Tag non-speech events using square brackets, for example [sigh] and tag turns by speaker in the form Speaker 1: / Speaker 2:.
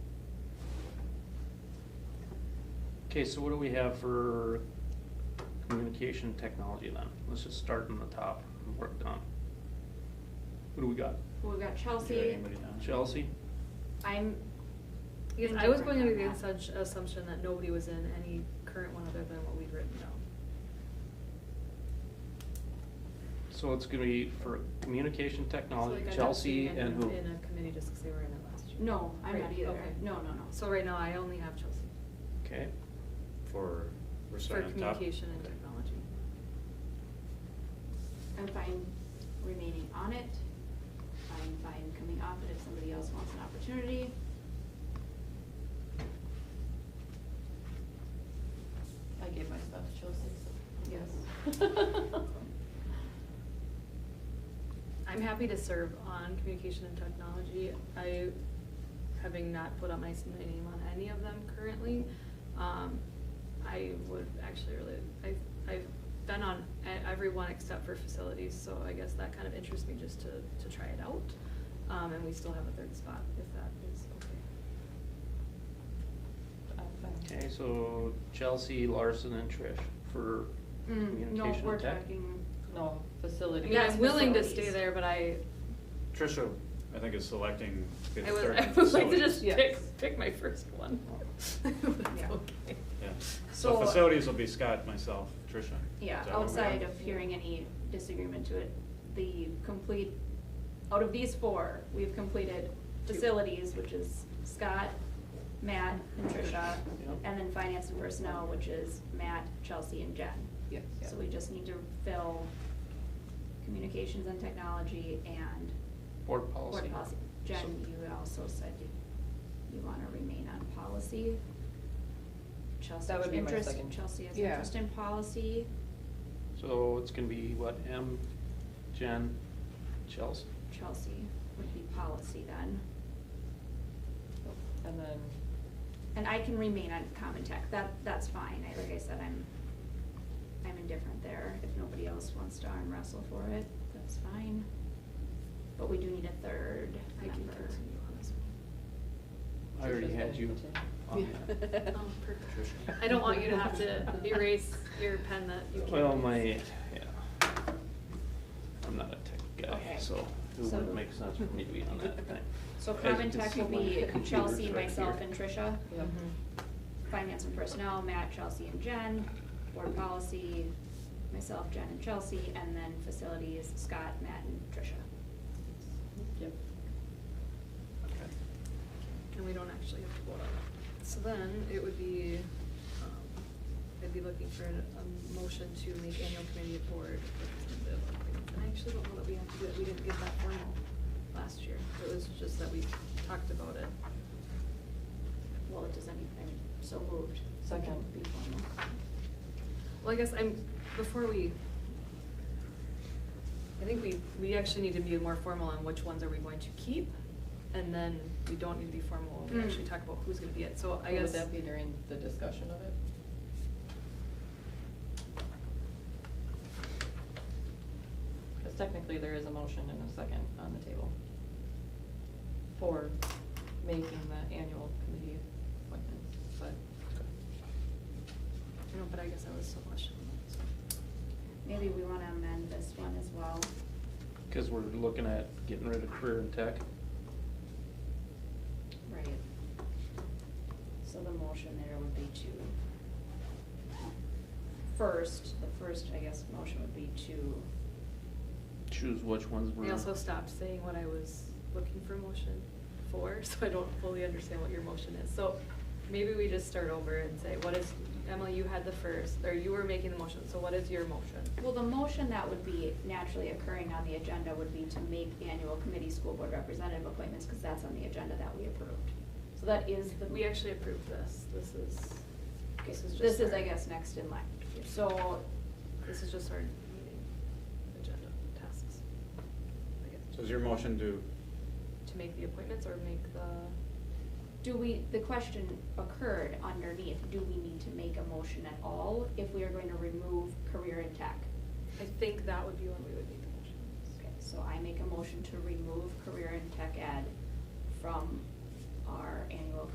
Speaker 1: Okay, so what do we have for communication technology then? Let's just start from the top and work down. What do we got?
Speaker 2: We've got
Speaker 3: Is
Speaker 2: Chelsea,
Speaker 3: there anybody down?
Speaker 1: Chelsea?
Speaker 2: I'm,
Speaker 4: Because I was
Speaker 2: Indifferent
Speaker 4: going under
Speaker 2: on
Speaker 4: the
Speaker 2: that.
Speaker 4: such assumption that nobody was in any current one other than what we'd written down.
Speaker 1: So it's gonna be for communication
Speaker 4: So,
Speaker 1: technology,
Speaker 4: like, I'd have to
Speaker 1: Chelsea
Speaker 4: be in-
Speaker 1: and who?
Speaker 4: In a committee just because they were in it last year.
Speaker 2: no, I'm
Speaker 4: Right,
Speaker 2: not either,
Speaker 4: okay.
Speaker 2: no, no, no.
Speaker 4: So right now, I only have Chelsea
Speaker 1: Okay,
Speaker 3: For, we're
Speaker 4: for
Speaker 3: starting on top?
Speaker 4: communication and technology.
Speaker 2: I'm fine remaining on it, I'm fine coming off it if somebody else wants an opportunity.
Speaker 5: I gave my stuff to Chelsea, so. [laughs]
Speaker 2: Yes.
Speaker 4: I'm happy to serve on communication and technology. I, having not put up my s- my name on any of them currently, um, I would actually really, I, I've been on e- every one except for facilities, so I guess that kind of interests me just to, to try it out. Um, and we still have a third spot, if that is okay.
Speaker 5: I'm fine.
Speaker 1: okay, so Chelsea, Larson and Trish for
Speaker 2: Mm,
Speaker 1: communication
Speaker 2: no,
Speaker 1: tech?
Speaker 2: we're talking,
Speaker 5: No,
Speaker 4: I
Speaker 5: facility.
Speaker 4: mean, I'm willing to stay
Speaker 2: facilities.
Speaker 4: there, but I,
Speaker 3: Trisha, I think is selecting. the
Speaker 4: [laughs] I would,
Speaker 3: third
Speaker 4: I would like to
Speaker 3: facilities.
Speaker 4: just
Speaker 5: Yes.
Speaker 4: pick, pick my first one. [laughs] That's
Speaker 2: Yeah.
Speaker 4: okay.
Speaker 3: Yeah, so
Speaker 4: uh,
Speaker 2: So-
Speaker 3: facilities will be Scott, myself, Trisha.
Speaker 2: yeah,
Speaker 3: Is that what we
Speaker 2: outside
Speaker 3: got?
Speaker 2: of hearing any disagreement to it, the complete, out of these four, we've completed
Speaker 4: Two.
Speaker 2: facilities, which is Scott, Matt, and Tricia,
Speaker 1: Yep.
Speaker 2: and then finance and personnel, which is Matt, Chelsea, and Jen.
Speaker 5: Yes.
Speaker 2: So we just need to fill communications and technology and
Speaker 1: Board policy.
Speaker 2: board policy. Jen, you also said you, you wanna remain on policy. Chelsea has
Speaker 5: would be my
Speaker 2: interest,
Speaker 5: second-
Speaker 2: Chelsea has
Speaker 5: yeah.
Speaker 2: interest in policy.
Speaker 1: So it's gonna be what, M, Jen, Chelsea?
Speaker 2: Chelsea would be policy then.
Speaker 5: And then,
Speaker 2: And I can remain on common tech, that, that's fine, I, like I said, I'm, I'm indifferent there, if nobody else wants to arm wrestle for it, that's fine. But we do need a third
Speaker 4: I can
Speaker 2: member.
Speaker 4: continue on this one.
Speaker 1: I already
Speaker 5: Trisha's
Speaker 1: had
Speaker 5: gonna
Speaker 1: you on
Speaker 5: continue.
Speaker 2: [laughs]
Speaker 1: that.
Speaker 5: Yeah.
Speaker 4: Oh, perfect.
Speaker 3: Trisha.
Speaker 4: I don't want you to have to erase your pen that you can't.
Speaker 1: Well, my, yeah,
Speaker 4: use.
Speaker 1: I'm not a tech guy,
Speaker 2: Okay.
Speaker 1: so it
Speaker 2: So-
Speaker 1: wouldn't make sense for me to be on that thing.
Speaker 2: So
Speaker 1: As you
Speaker 2: common
Speaker 1: can
Speaker 2: tech
Speaker 1: see,
Speaker 2: will
Speaker 1: my
Speaker 2: be
Speaker 1: computer's
Speaker 2: Chelsea,
Speaker 1: right
Speaker 2: myself,
Speaker 1: here.
Speaker 2: and Tricia. Mm-hmm.
Speaker 5: Yep.
Speaker 4: Mm-hmm.
Speaker 2: Finance and personnel, Matt, Chelsea, and Jen. Board policy, myself, Jen, and Chelsea, and then facilities, Scott, Matt, and Tricia.
Speaker 5: [laughs] Yep.
Speaker 1: Okay.
Speaker 4: And we don't actually have to vote on it. So then it would be, um, I'd be looking for a, a motion to make annual committee of board. representative appointments. And I actually don't know that we have to do it, we didn't get that formal last year. It was just that we talked about it.
Speaker 2: Well, it doesn't, I mean, so moved.
Speaker 5: Second.
Speaker 2: Be formal.
Speaker 4: Well, I guess I'm, before we, I think we, we actually need to be more formal on which ones are we going to keep, and then we don't need to be formal, when we
Speaker 2: Mm.
Speaker 4: actually talk about who's gonna be it, so I
Speaker 5: Would
Speaker 4: guess.
Speaker 5: that be during the discussion of it? Because technically, there is a motion and a second on the table for making the annual committee appointments, but
Speaker 4: No, but I guess I was so much.
Speaker 2: Maybe we wanna amend this one as well.
Speaker 1: Cause we're looking at getting rid of career and tech.
Speaker 2: Right. So the motion there would be to, first, the first, I guess, motion would be to
Speaker 1: Choose which ones we're.
Speaker 4: I also stopped saying what I was looking for motion for, [laughs] so I don't fully understand what your motion is, so maybe we just start over and say, what is, Emily, you had the first, or you were making the motion, so what is your motion?
Speaker 2: Well, the motion that would be naturally occurring on the agenda would be to make the annual committee school board representative appointments, because that's on the agenda that we approved. So that is the.
Speaker 4: We actually approved this, this is,
Speaker 2: Okay,
Speaker 4: this is just.
Speaker 2: This is,
Speaker 4: our-
Speaker 2: I guess, next in line. So,
Speaker 4: This is just our meeting agenda tasks, I guess.
Speaker 3: So is your motion to,
Speaker 4: To make the appointments or make the,
Speaker 2: do we, the question occurred underneath, do we need to make a motion at all if we are going to remove career and tech?
Speaker 4: I think that would be when we would make the motions.
Speaker 2: Okay, so I make a motion to remove career and tech ed from our annual